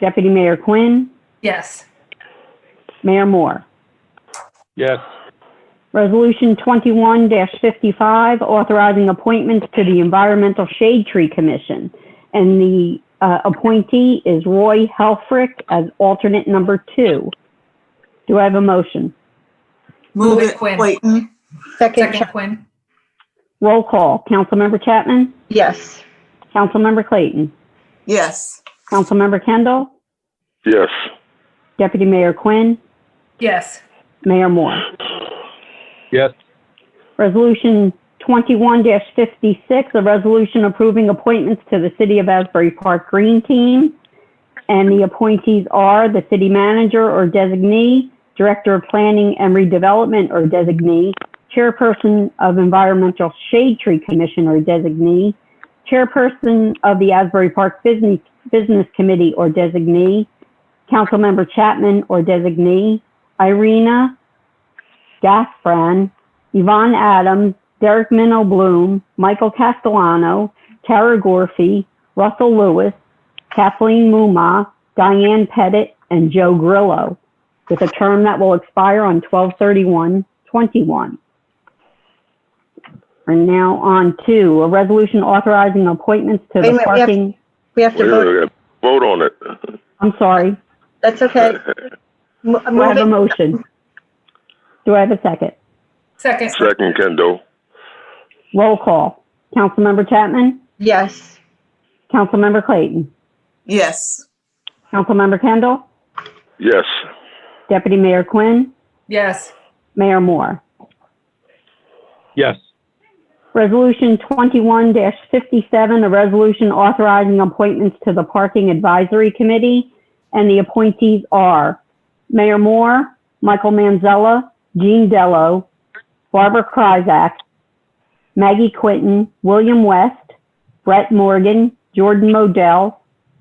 Deputy Mayor Quinn, Yes. Mayor Moore. Yes. Resolution 21-55, authorizing appointments to the Environmental Shade Tree Commission. And the uh, appointee is Roy Helfrich as alternate number two. Do I have a motion? Move it, Quinn. Clayton. Second Quinn. Roll call. Councilmember Chapman? Yes. Councilmember Clayton? Yes. Councilmember Kendall? Yes. Deputy Mayor Quinn? Yes. Mayor Moore? Yes. Resolution 21-56, a resolution approving appointments to the City of Asbury Park Green Team. And the appointees are the city manager or designee, director of planning and redevelopment or designee, chairperson of Environmental Shade Tree Commission or designee, chairperson of the Asbury Park Business, Business Committee or designee, Councilmember Chapman or designee, Irina Gasbran, Yvonne Adams, Derek Minnow Bloom, Michael Castellano, Tara Gorfie, Russell Lewis, Kathleen Mumma, Diane Pettit, and Joe Grillo, with a term that will expire on 12/31/21. We're now on to a resolution authorizing appointments to Wait the a minute, we have- parking, We have to Wait, vote. wait, wait. Vote on it. I'm sorry, That's okay. Mo- do I move have a it. motion? Do I have a second? Second. Second, Kendall. Roll call. Councilmember Chapman? Yes. Councilmember Clayton? Yes. Councilmember Kendall? Yes. Deputy Mayor Quinn, Yes. Mayor Moore. Yes. Resolution 21-57, a resolution authorizing appointments to the Parking Advisory Committee, and the appointees are Mayor Moore, Michael Manzella, Jean Dello, Barbara Kryzak, Maggie Quinton, William West, Brett Morgan, Jordan Modell,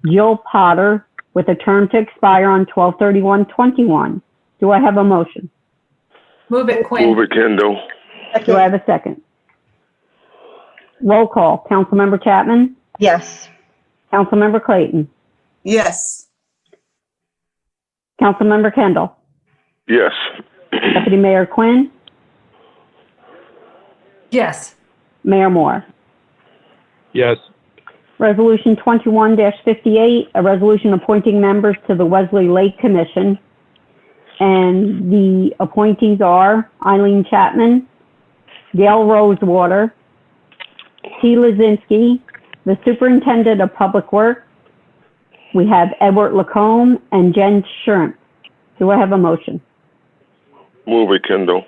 Jill Potter, with a term to expire on 12/31/21. Do I have a motion? Move it Move Quinn. it, Kendall. Do I Second. have a second? Roll call. Councilmember Chapman? Yes. Councilmember Clayton? Yes. Councilmember Kendall? Yes. Deputy Mayor Quinn? Yes. Mayor Moore? Yes. Resolution 21-58, a resolution appointing members to the Wesley Lake Commission. And the appointees are Eileen Chapman, Gail Rosewater, T. Lozinski, the Superintendent of Public Works. We have Edward Lacombe and Jen Sherm. Do I have a motion? Move it, Kendall.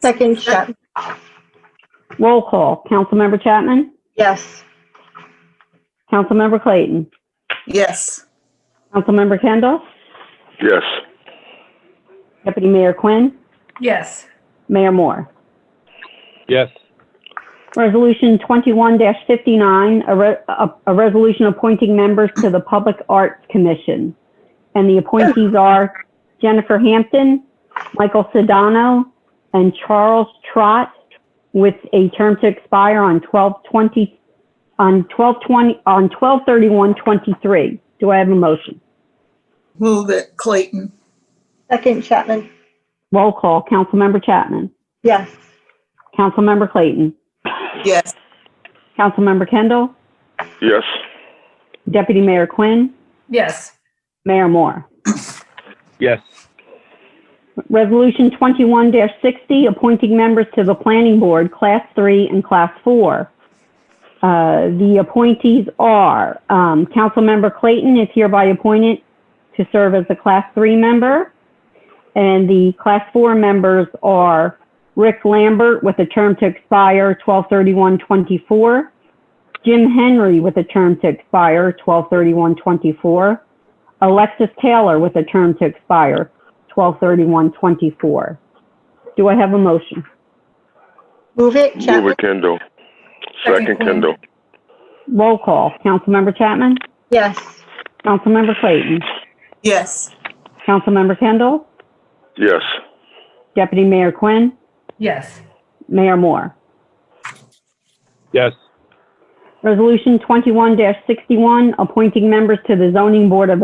Second Chapman. Roll call. Councilmember Chapman? Yes. Councilmember Clayton? Yes. Councilmember Kendall? Yes. Deputy Mayor Quinn? Yes. Mayor Moore? Yes. Resolution 21-59, a re- a- a resolution appointing members to the Public Arts Commission. And the appointees are Jennifer Hampton, Michael Sedano, and Charles Trot, with a term to expire on 12/20, on 12/20, on 12/31/23. Do I have a motion? Move it, Clayton. Second Chapman. Roll call. Councilmember Chapman. Yes. Councilmember Clayton. Yes. Councilmember Kendall. Yes. Deputy Mayor Quinn. Yes. Mayor Moore. Yes. Resolution 21-60, appointing members to the Planning Board, Class 3 and Class 4. Uh, The appointees are, um, Councilmember Clayton is hereby appointed to serve as a Class 3 member, and the Class 4 members are Rick Lambert with a term to expire 12/31/24, Jim Henry with a term to expire 12/31/24, Alexis Taylor with a term to expire 12/31/24. Do I have a motion? Move it Move Chapman. it, Kendall. Second, Second, Quinn. Kendall. Roll call. Councilmember Chapman? Yes. Councilmember Clayton? Yes. Councilmember Kendall? Yes. Deputy Mayor Quinn? Yes. Mayor Moore? Yes. Resolution 21-61, appointing members to the Zoning Board of